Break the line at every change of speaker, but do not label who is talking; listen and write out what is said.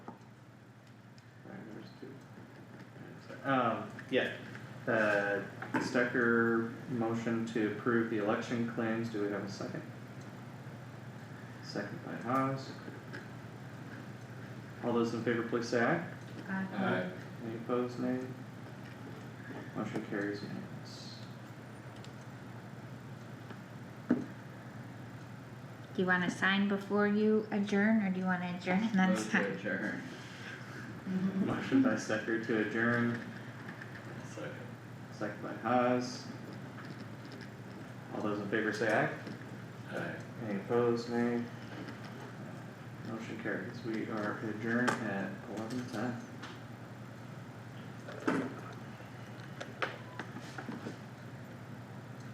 um, yeah, uh, Stecker motion to approve the election claims, do we have a second? Second by Haas. All those in favor, please say aye.
Uh,
Aye.
Any opposed, nay? Motion carries unanimous.
Do you wanna sign before you adjourn, or do you wanna adjourn and then
Move to
sign?
adjourn.
Motion by Stecker to adjourn,
Second.
second by Haas. All those in favor say aye.
Aye.
Any opposed, nay? Motion carries, we are adjourned at eleven ten.